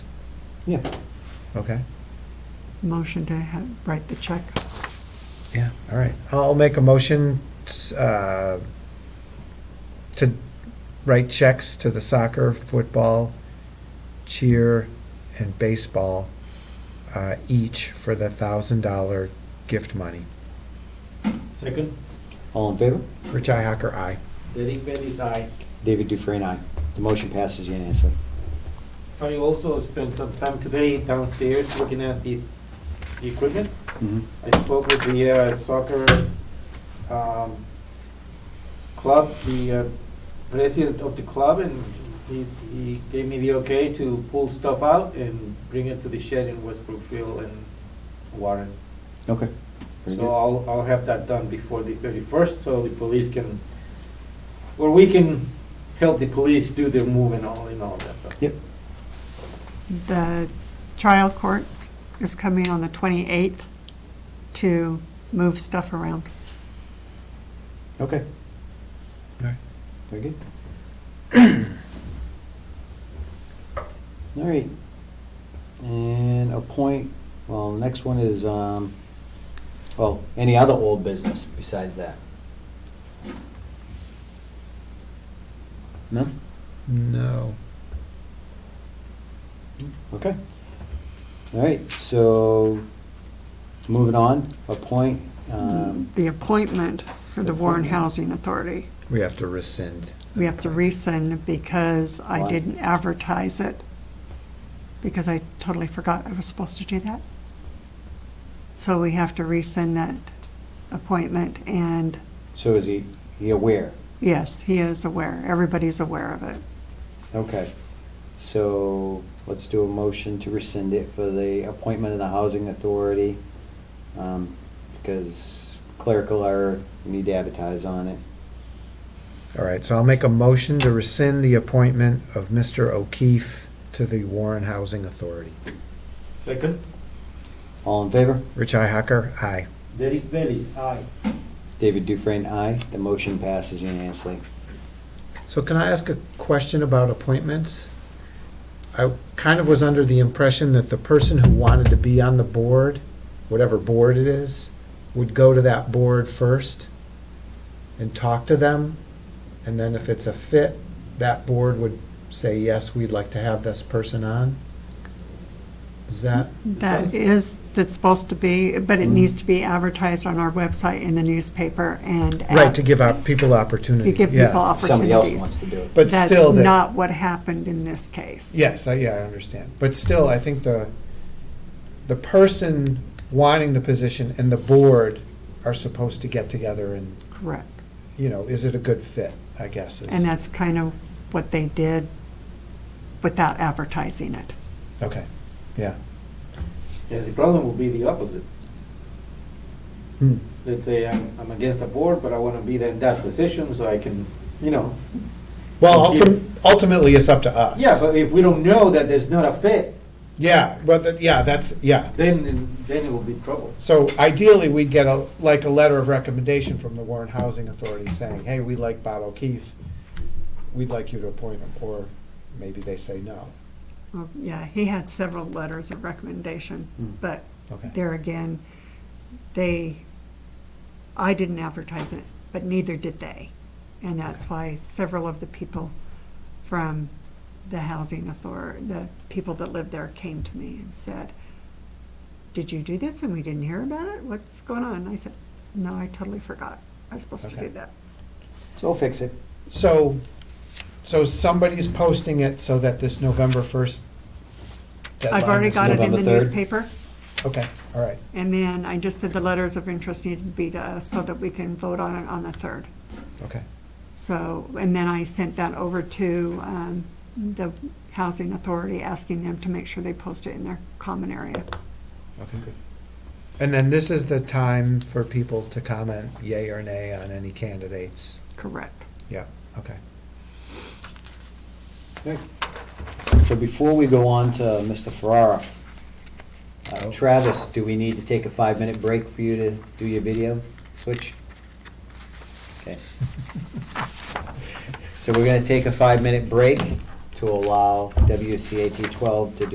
Yeah. Okay, Motion to ha write the check. yeah, all right. I'll make a motion uh, to write checks to the soccer, football, cheer, and baseball uh, each for the $1,000 gift money. Second, All in favor? Rich Ihacker, aye. Derek Bailey's aye. David Dufresne, aye. The motion passes unanimously. I also spent some time today downstairs looking at the, the equipment. Mhm. I spoke with the uh, soccer um, club, the uh, president of the club, and he, he gave me the okay to pull stuff out and bring it to the shed in West Brookfield and Warren. Okay. Very So good. I'll, I'll have that done before the thirty-first, so the police can, or we can help the police do their move and all, and all that stuff. Yep. The trial court is coming on the 28th to move stuff around. Okay. All right. Very good. All right. And appoint, well, the next one is, um, well, any other old business besides that? No? No. Okay. All right, so moving on, appoint, um, The appointment for the Warren Housing Authority, We have to rescind. we have to rescind because I Why? didn't advertise it, because I totally forgot I was supposed to do that. So we have to rescind that appointment, and so is he, he aware? yes, he is aware, everybody's aware of it. Okay, so let's do a motion to rescind it for the appointment of the housing authority, um, because clerical error, we need to advertise on it. All right, so I'll make a motion to rescind the appointment of Mr. O'Keefe to the Warren Housing Authority. Second, All in favor? Rich Ihacker, aye. Derek Bailey's aye. David Dufresne, aye. The motion passes unanimously. So can I ask a question about appointments? I kind of was under the impression that the person who wanted to be on the board, whatever board it is, would go to that board first and talk to them, and then if it's a fit, that board would say, yes, we'd like to have this person on? Is that, That is, that's supposed to be, but Mm-hmm. it needs to be advertised on our website, in the newspaper, and. right, to give out people opportunity? To give yeah. people Somebody else opportunities. wants to do it. But still, That's that- not what happened in this case. Yes, I, yeah, I understand. But still, I think the, the person wanting the position and the board are supposed to get together and, Correct. you know, is it a good fit, I guess. is- And that's kind of what they did without advertising it. Okay, yeah. Yeah, the problem will be the opposite. Hmm. Let's say I'm, I'm against the board, but I wanna be in that position so I can, you know. Well, ultim- ultimately, it's up to us. Yeah, but if we don't know that there's not a fit, Yeah, but, that- yeah, that's, yeah. then, then it will be trouble. So ideally, we'd get a, like a letter of recommendation from the Warren Housing Authority saying, hey, we like Bob O'Keefe. We'd like you to appoint him, or maybe they say no. Well, Yeah, he had several letters of recommendation, Hmm. but Okay. there again, they, I didn't advertise it, but neither did they. And that's why several of the people from the housing authority, the people that live there came to me and said, did you do this and we didn't hear about it? What's going on? And I said, no, I totally forgot. I was supposed to Okay. do that. So we'll fix it. So, so somebody's posting it so that this November first deadline. I've already is- got it in the November third. newspaper. Okay, all right, And then I just said the letters of interest need to be to us so that we can vote on it on the 3rd. okay, So, and then I sent that over to um, the Housing Authority, asking them to make sure they post it in their common area. okay, good. And then this is the time for people to comment yay or nay on any candidates. Correct. Yeah, okay. Okay. So before we go on to Mr. Ferrara, uh, Travis, do we need to take a five-minute break for you to do your video switch? Okay. So we're gonna take a five-minute break to allow WCAT twelve to do.